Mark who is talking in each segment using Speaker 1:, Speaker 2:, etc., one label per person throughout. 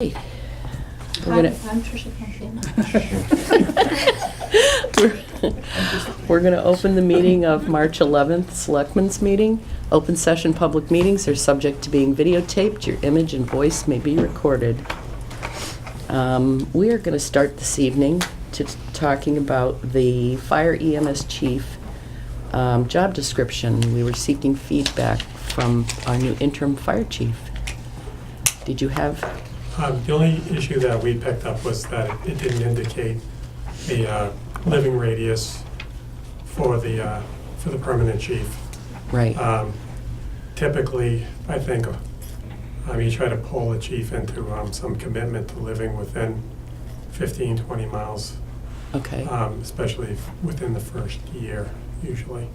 Speaker 1: Hey, We're
Speaker 2: Hi,
Speaker 1: gonna-
Speaker 2: I'm Trisha Campbell.
Speaker 1: We're we're going to open the meeting of March 11th, Selectmen's Meeting. Open session public meetings are subject to being videotaped. Your image and voice may be recorded. Um, We are going to start this evening to talking about the fire EMS chief um, job description. We were seeking feedback from our new interim fire chief. Did you have
Speaker 3: Um, The only issue that we picked up was that it didn't indicate the uh, living radius for the, uh, for the permanent chief.
Speaker 1: Right.
Speaker 3: Um, Typically, I think, um, you try to pull the chief into um, some commitment to living within 15, 20 miles,
Speaker 1: Okay.
Speaker 3: um, especially within the first year usually.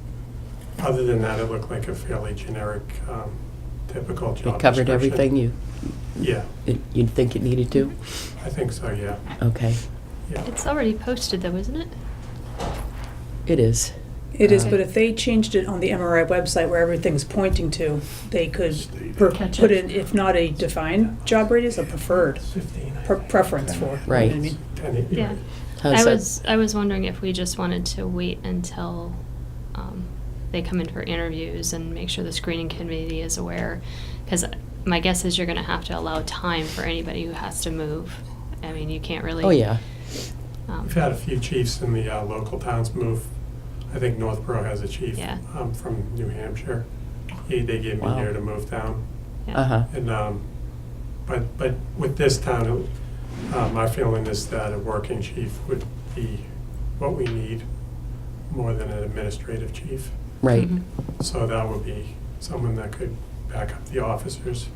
Speaker 3: Other than that, it looked like a fairly generic, um, typical job
Speaker 1: It covered
Speaker 3: description.
Speaker 1: everything you,
Speaker 3: Yeah,
Speaker 1: it- you'd think it needed to?
Speaker 3: I think so, yeah,
Speaker 1: Okay,
Speaker 3: yeah.
Speaker 4: It's already posted though, isn't it?
Speaker 1: it is.
Speaker 5: It is,
Speaker 1: Uh,
Speaker 5: but if they changed it on the MRI website where everything's pointing to, they could per-
Speaker 4: Catch
Speaker 5: put
Speaker 4: it.
Speaker 5: in, if not a defined job radius, a preferred,
Speaker 3: 15, I
Speaker 5: per-
Speaker 3: think.
Speaker 5: preference for. you know what I
Speaker 1: Right.
Speaker 5: mean?
Speaker 3: Ten,
Speaker 4: Yeah.
Speaker 1: How's
Speaker 4: I
Speaker 1: Oh, that?
Speaker 4: was I was wondering if we just wanted to wait until um, they come in for interviews and make sure the screening committee is aware, because my guess is you're going to have to allow time for anybody who has to move. I mean, you can't really.
Speaker 1: Oh, yeah,
Speaker 4: Um,
Speaker 3: We've had a few chiefs in the uh, local towns move. I think Northborough has a chief
Speaker 4: Yeah.
Speaker 3: um, from New Hampshire. He, they gave me
Speaker 1: Wow.
Speaker 3: here to move down.
Speaker 4: yeah.
Speaker 1: uh-huh,
Speaker 3: And, um, but, but with this town, uh, my feeling is that a working chief would be what we need more than an administrative chief.
Speaker 1: right,
Speaker 4: Mhm.
Speaker 3: So that would be someone that could back up the officers.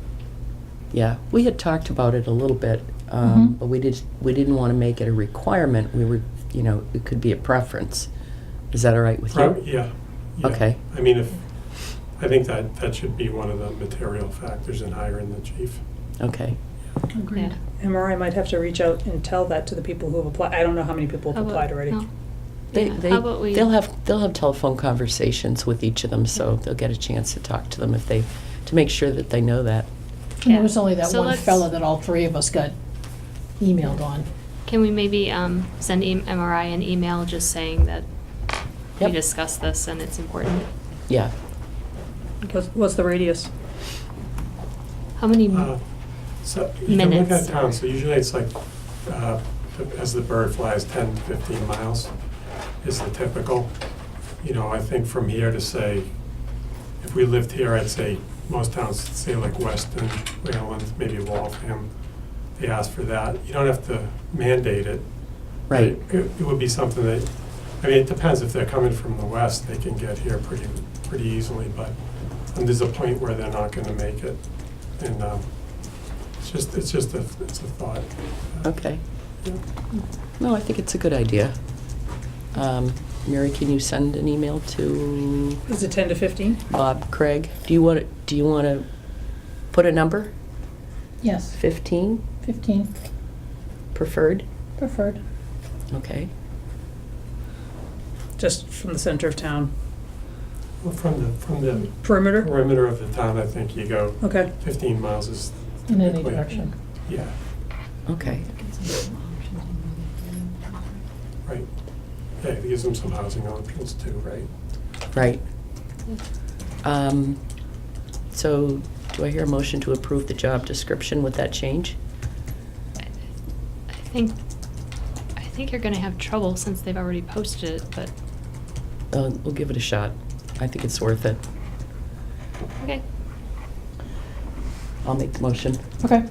Speaker 1: yeah. We had talked about it a little bit, um,
Speaker 4: Mm-hmm.
Speaker 5: Mhm.
Speaker 1: but we did, we didn't want to make it a requirement. We were, you know, it could be a preference. Is that all right with
Speaker 3: Prob-
Speaker 1: you?
Speaker 3: Yeah. yeah.
Speaker 1: Okay.
Speaker 3: I mean, if, I think that, that should be one of the material factors in hiring the chief.
Speaker 1: Okay,
Speaker 4: Yeah.
Speaker 5: MRI might have to reach out and tell that to the people who have applied. I don't know how many people
Speaker 4: How
Speaker 5: have
Speaker 4: about-
Speaker 5: applied already.
Speaker 4: Oh, no.
Speaker 1: They,
Speaker 4: Yeah,
Speaker 1: they,
Speaker 4: How about we?
Speaker 1: they'll have, they'll have telephone conversations with each of them, so they'll get a chance to talk to them if they, to make sure that they know that.
Speaker 6: And
Speaker 4: Yeah.
Speaker 6: there was only that
Speaker 4: So
Speaker 6: one
Speaker 4: let's-
Speaker 6: fella that all three of us got emailed on.
Speaker 4: Can we maybe um, send e- MRI an email just saying that
Speaker 1: Yep.
Speaker 4: we discussed this and it's important?
Speaker 1: Yeah,
Speaker 5: What's, what's the radius?
Speaker 4: How many?
Speaker 3: Uh, So you can look at
Speaker 4: Minutes.
Speaker 3: town, so usually it's like, uh, as the bird flies, 10, 15 miles is the typical. You know, I think from here to say, if we lived here, I'd say most towns, say like Weston, Wayland, maybe Waltham, they ask for that. You don't have to mandate it.
Speaker 1: right,
Speaker 3: It it would be something that, I mean, it depends, if they're coming from the west, they can get here pretty, pretty easily, but and there's a point where they're not gonna make it. And, um, it's just, it's just a, it's a thought.
Speaker 1: okay.
Speaker 3: Yeah.
Speaker 1: No, I think it's a good idea. Um, Mary, can you send an email to
Speaker 5: Is it ten to fifteen?
Speaker 1: Bob, Craig? Do you want to, do you want to put a number?
Speaker 6: Yes,
Speaker 1: 15
Speaker 6: fifteen
Speaker 1: preferred?
Speaker 6: preferred.
Speaker 1: Okay,
Speaker 5: Just from the center of town
Speaker 3: Well, From the, from the
Speaker 5: perimeter?
Speaker 3: perimeter of the town, I think you go
Speaker 5: Okay.
Speaker 3: fifteen miles is,
Speaker 6: In any
Speaker 3: Wait.
Speaker 6: direction.
Speaker 3: yeah,
Speaker 1: okay,
Speaker 3: right. Yeah, it gives them some housing options too, right?
Speaker 1: right. Um, So do I hear a motion to approve the job description with that change?
Speaker 4: I think, I think you're gonna have trouble since they've already posted it, but,
Speaker 1: Uh, We'll give it a shot. I think it's worth it.
Speaker 4: okay.
Speaker 1: I'll make the motion.
Speaker 6: Okay,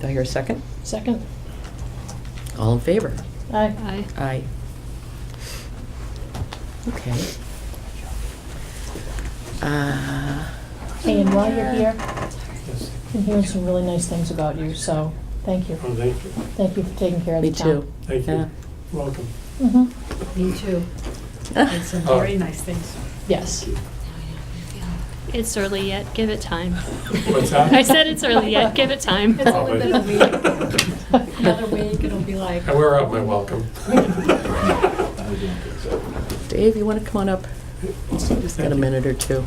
Speaker 1: Do I hear a second?
Speaker 6: second.
Speaker 1: All in favor?
Speaker 6: Aye.
Speaker 4: I,
Speaker 1: Aye. Okay. Uh,
Speaker 6: Hey, and while you're here,
Speaker 3: Yes.
Speaker 6: I'm hearing some really nice things about you, so thank you.
Speaker 3: Oh, thank you,
Speaker 6: Thank you for taking care of
Speaker 1: Me
Speaker 6: the town.
Speaker 1: too.
Speaker 3: thank
Speaker 1: Yeah.
Speaker 3: you. Welcome.
Speaker 6: Mhm.
Speaker 7: Me too. Did some
Speaker 3: Oh.
Speaker 7: very nice things.
Speaker 6: Yes.
Speaker 4: it's early yet, give it time.
Speaker 3: What's that?
Speaker 4: I said it's early yet, give it time.
Speaker 7: It's only been a week.
Speaker 3: Oh, but-
Speaker 7: Another week, it'll be like.
Speaker 3: And we're up, my welcome.
Speaker 1: Dave, you want to come on up? Just got a minute or two.